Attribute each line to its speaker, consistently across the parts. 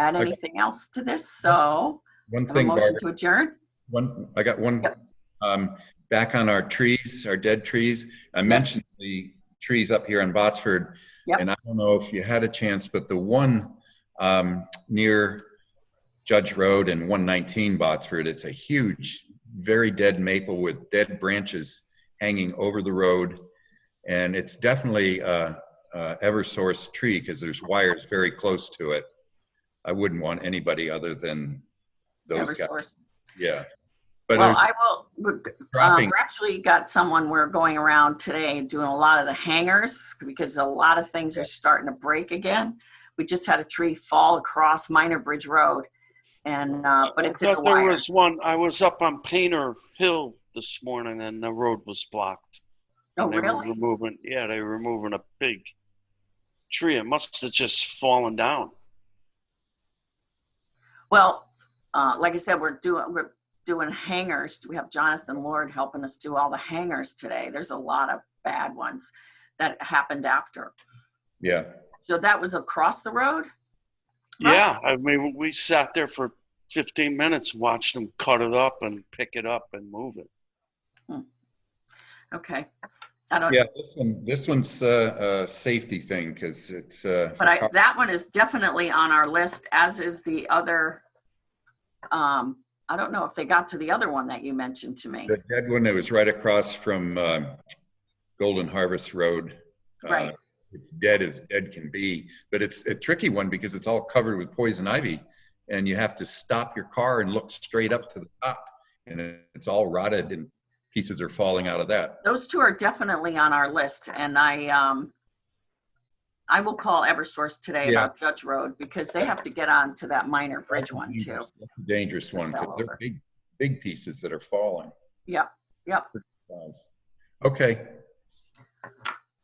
Speaker 1: add
Speaker 2: Okay.
Speaker 1: anything else to this, so
Speaker 2: One
Speaker 1: have a
Speaker 2: thing,
Speaker 1: motion
Speaker 2: Barbara,
Speaker 1: to adjourn?
Speaker 2: one, I got one,
Speaker 1: Yep.
Speaker 2: um, back on our trees, our dead trees. I mentioned the trees up here in Botsford.
Speaker 1: Yep.
Speaker 2: And I don't know if you had a chance, but the one, um, near Judge Road and 119 Botsford, it's a huge, very dead maple with dead branches hanging over the road. And it's definitely a, a ever-source tree because there's wires very close to it. I wouldn't want anybody other than those guys.
Speaker 1: Eversource.
Speaker 2: Yeah. But
Speaker 1: Well,
Speaker 2: there's
Speaker 1: I will, we're- Um,
Speaker 2: dropping.
Speaker 1: we're actually got someone, we're going around today and doing a lot of the hangers because a lot of things are starting to break again. We just had a tree fall across Minor Bridge Road and, uh, but it's in
Speaker 3: I
Speaker 1: the
Speaker 3: thought there
Speaker 1: wires.
Speaker 3: was one, I was up on Painter Hill this morning and the road was blocked.
Speaker 1: Oh,
Speaker 3: They were
Speaker 1: really?
Speaker 3: Removing, yeah, they were removing a big tree. It must have just fallen down.
Speaker 1: Well, uh, like I said, we're doing, we're doing hangers. We have Jonathan Lord helping us do all the hangers today. There's a lot of bad ones that happened after.
Speaker 2: yeah.
Speaker 1: So that was across the road? Russ?
Speaker 3: Yeah, I mean, we sat there for 15 minutes, watched them cut it up and pick it up and move it.
Speaker 1: Okay. I don't,
Speaker 2: Yeah, this one, this one's uh, a safety thing because it's. uh,
Speaker 1: But I, that one is definitely on our list, as is the other, um, I don't know if they got to the other one that you mentioned to me.
Speaker 2: The dead one, it was right across from um, Golden Harvest Road. Uh,
Speaker 1: Right.
Speaker 2: It's dead as dead can be, but it's a tricky one because it's all covered with poison ivy. And you have to stop your car and look straight up to the top. And it- it's all rotted and pieces are falling out of that.
Speaker 1: Those two are definitely on our list and I, um, I will call Eversource today
Speaker 2: Yeah.
Speaker 1: about Judge Road because they have to get on to that minor bridge one too.
Speaker 2: That's a Dangerous one because
Speaker 1: Fell over.
Speaker 2: they're big, big pieces that are falling.
Speaker 1: Yep, yep.
Speaker 2: Okay,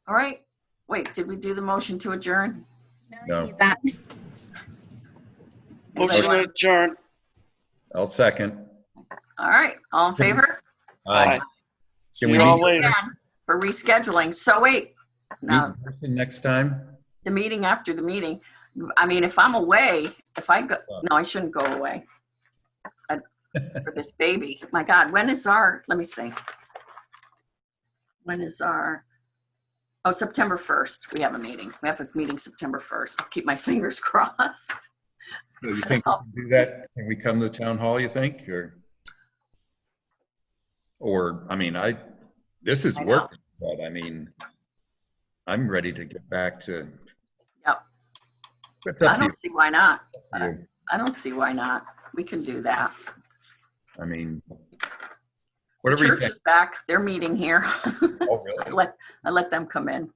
Speaker 1: All right. Wait, did we do the motion to adjourn?
Speaker 2: No.
Speaker 4: you need That.
Speaker 3: Motion to adjourn.
Speaker 2: I'll second.
Speaker 1: All right, all in favor?
Speaker 3: Aye.
Speaker 2: Can
Speaker 3: See
Speaker 2: we
Speaker 3: you all
Speaker 2: need-
Speaker 3: later.
Speaker 1: For rescheduling. So wait,
Speaker 2: Meet
Speaker 1: now
Speaker 2: in person next time?
Speaker 1: the meeting after the meeting. I mean, if I'm away, if I go,
Speaker 2: Oh.
Speaker 1: no, I shouldn't go away. I- For this baby, my God, when is our, let me see. When is our, oh, September 1st, we have a meeting. We have a meeting September 1st. Keep my fingers crossed.
Speaker 2: Do you think we can do that? Can we come to the town hall, you think, or? Or, I mean, I, this is
Speaker 1: I know.
Speaker 2: working, but I mean, I'm ready to get back to.
Speaker 1: Yep.
Speaker 2: It's
Speaker 1: I
Speaker 2: up to
Speaker 1: don't see why not.
Speaker 2: you.
Speaker 1: I don't see why not. We can do that.
Speaker 2: I mean,
Speaker 1: The
Speaker 2: whatever you
Speaker 1: Church
Speaker 2: think.
Speaker 1: is back. They're meeting here.
Speaker 2: Oh,
Speaker 1: I
Speaker 2: really?
Speaker 1: let, I let them come in.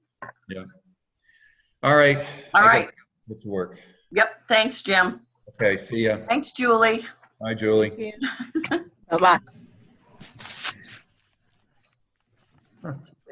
Speaker 2: All right. I
Speaker 1: All
Speaker 2: got-
Speaker 1: right.
Speaker 2: Let's work.
Speaker 1: Yep. Thanks, Jim.
Speaker 2: Okay, see ya.
Speaker 1: Thanks, Julie.
Speaker 2: Bye, Julie.
Speaker 4: Bye-bye.